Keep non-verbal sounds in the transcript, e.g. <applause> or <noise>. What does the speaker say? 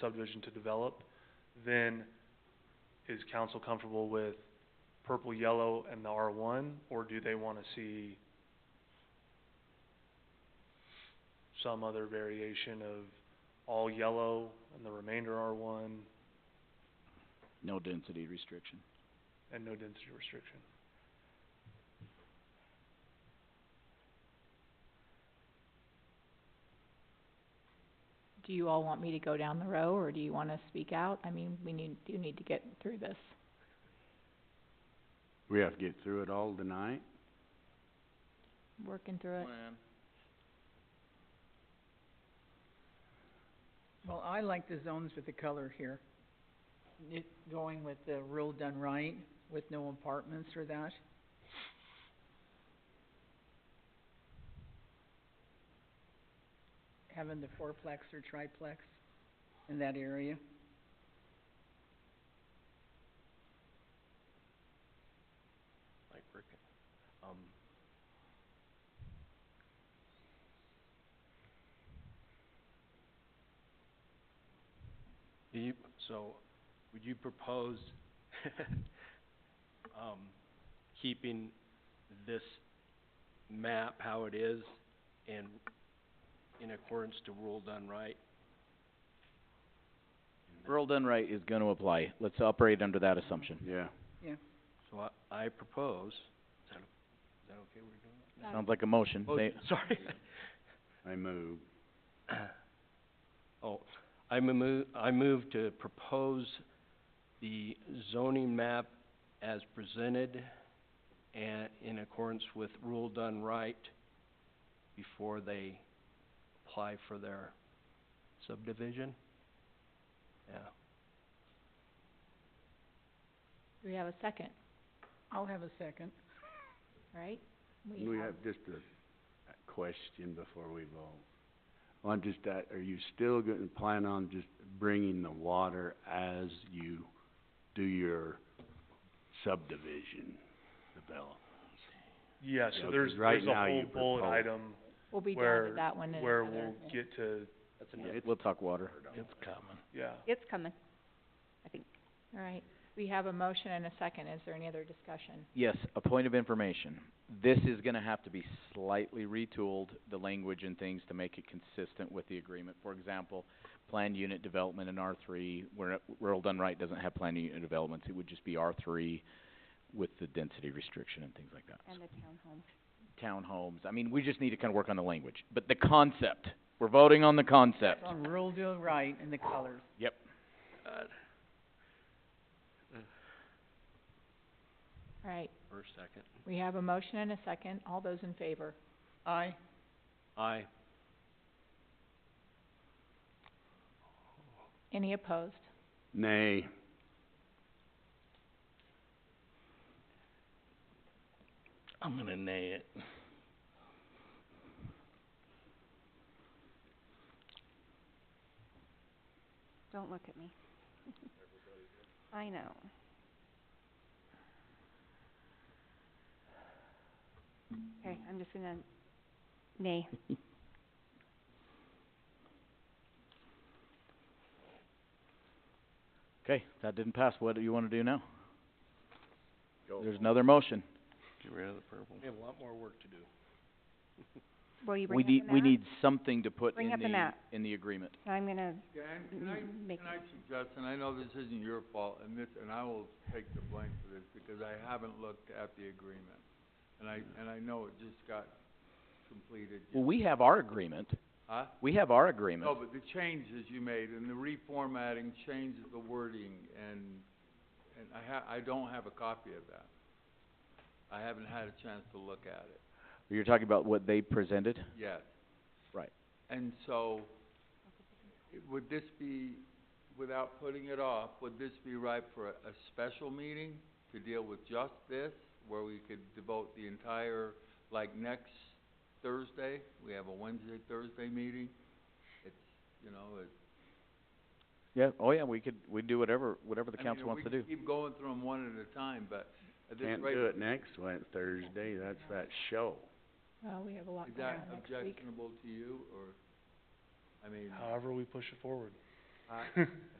subdivision to develop, then is council comfortable with purple, yellow, and the R one, or do they wanna see some other variation of all yellow and the remainder R one no density restriction. and no density restriction? do you all want me to go down the row, or do you wanna speak out? I mean, we need, do need to get through this. We have to get through it all tonight? Working through it. Well, I like the zones with the color here. It, going with the rule done right, with no apartments or that. Having the fourplex or triplex in that area. like brick, um. Do you, so, would you propose, <laughs> um, keeping this map how it is and in accordance to rule done right? Rural done right is gonna apply, let's operate under that assumption. Yeah. So I, I propose, is that, is that okay we're doing that? Sounds like a motion, May- Motion, sorry. <laughs> I move. Oh, I move, I move to propose the zoning map as presented and in accordance with rule done right before they apply for their subdivision. Yeah, Do we have a second, I'll have a second. right? We have just a a question before we vote. Well, I'm just, at- are you still gonna plan on just bringing the water as you do your subdivision develop? Yeah, Yeah, so 'cause there's, right there's a now you whole bullet propose- item We'll be down where, to that one in where another- we'll get to, that's Yeah, enough. we'll talk water. It's coming. yeah. It's coming, I think. All right, we have a motion and a second, is there any other discussion? Yes, a point of information, this is gonna have to be slightly retooled, the language and things to make it consistent with the agreement. For example, planned unit development in R three, where rural done right doesn't have planned unit developments, it would just be R three with the density restriction and things like that. And the townhome. Townhomes, I mean, we just need to kinda work on the language, but the concept, we're voting on the concept. On rule done right and the colors. Yep. All right, For a second. we have a motion and a second, all those in favor? Aye. Aye. Any opposed? Nay. I'm gonna nay it. Don't look at me. I know. Okay, I'm just gonna, nay. Okay, that didn't pass, what do you wanna do now? Go There's another motion. Get rid of the purple. We have a lot more work to do. Will you We bring up the need, map? we need something to put Bring in up the the, map. in the agreement. I'm gonna Dan, can I, m- make, can I suggest, and I know this isn't your fault, and this, and I will take the blame for this, because I haven't looked at the agreement. And I, and I know it just got completed. Well, we have our agreement, Huh? Oh. we have our No, agreement. but the changes you made and the reformatting changes the wording and, and I ha- I don't have a copy of that. I haven't had a chance to look at it You're talking about what they presented? yet. Right. And so, it- would this be, without putting it off, would this be right for a, a special meeting to deal with just this? Where we could devote the entire, like next Thursday, we have a Wednesday, Thursday meeting? It's, you know, it, Yeah, oh yeah, we could, we'd do whatever, whatever the I mean, council wants to do. we could keep going through them one at a time, but at this Can't rate, do it next Wed- Thursday, that's that show. Well, we have a lot is going that on next week. objectionable to you, or, I mean, However we push it forward. Uh,